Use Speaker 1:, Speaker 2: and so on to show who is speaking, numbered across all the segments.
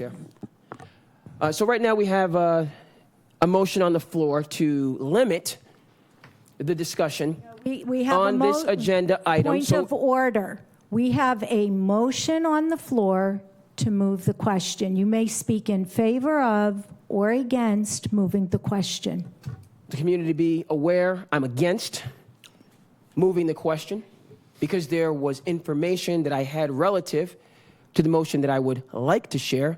Speaker 1: Chair. Uh, So right now, we have uh, a motion on the floor to limit the discussion
Speaker 2: We we have a
Speaker 1: on this
Speaker 2: mo-
Speaker 1: agenda item.
Speaker 2: Point
Speaker 1: So
Speaker 2: of order. We have a motion on the floor to move the question. You may speak in favor of or against moving the question.
Speaker 1: the community be aware, I'm against moving the question because there was information that I had relative to the motion that I would like to share.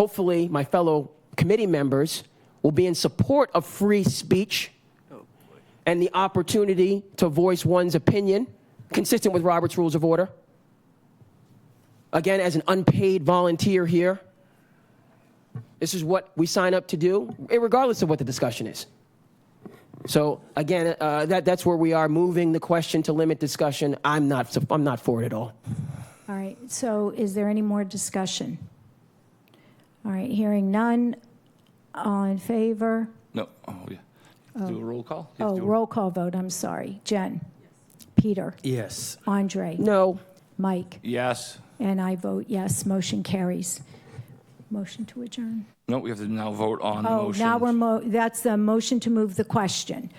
Speaker 1: Hopefully, my fellow committee members will be in support of free speech and the opportunity to voice one's opinion consistent with Robert's Rules of Order. Again, as an unpaid volunteer here, this is what we sign up to do, regardless of what the discussion is. So again, uh, that, that's where we are, moving the question to limit discussion. I'm not, sup- I'm not for it at all.
Speaker 2: All right, so is there any more discussion? All right, hearing none. All in favor?
Speaker 3: No, oh, yeah. Do a roll call? You have
Speaker 2: Oh,
Speaker 3: to do a-
Speaker 2: roll call vote, I'm sorry. Jen? Peter?
Speaker 4: Yes.
Speaker 2: Andre?
Speaker 1: No,
Speaker 2: Mike?
Speaker 3: Yes.
Speaker 2: And I vote yes, motion carries. Motion to adjourn.
Speaker 3: No, we have to now vote on the
Speaker 2: Oh,
Speaker 3: motion.
Speaker 2: now we're, mo- that's the motion to move the question.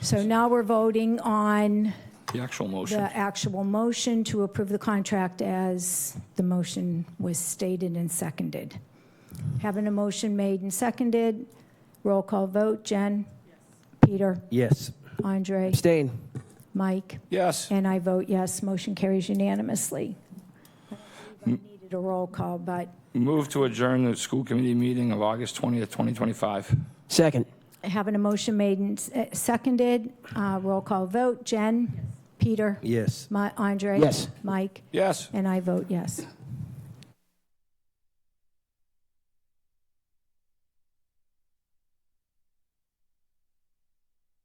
Speaker 2: So now we're voting on
Speaker 3: The actual
Speaker 2: the
Speaker 3: motion.
Speaker 2: actual motion to approve the contract as the motion was stated and seconded. Having a motion made and seconded, roll call vote, Jen? Peter?
Speaker 4: Yes.
Speaker 2: Andre?
Speaker 1: abstain.
Speaker 2: Mike?
Speaker 3: Yes.
Speaker 2: And I vote yes, motion carries unanimously. I believe I needed a roll call, but
Speaker 3: Move to adjourn the school committee meeting of August 20th, 2025.
Speaker 1: Second,
Speaker 2: Having a motion made and s- eh, seconded, uh, roll call vote. Jen? Peter?
Speaker 4: Yes.
Speaker 2: Mi- Andre?
Speaker 1: Yes.
Speaker 2: Mike?
Speaker 3: Yes.
Speaker 2: And I vote yes.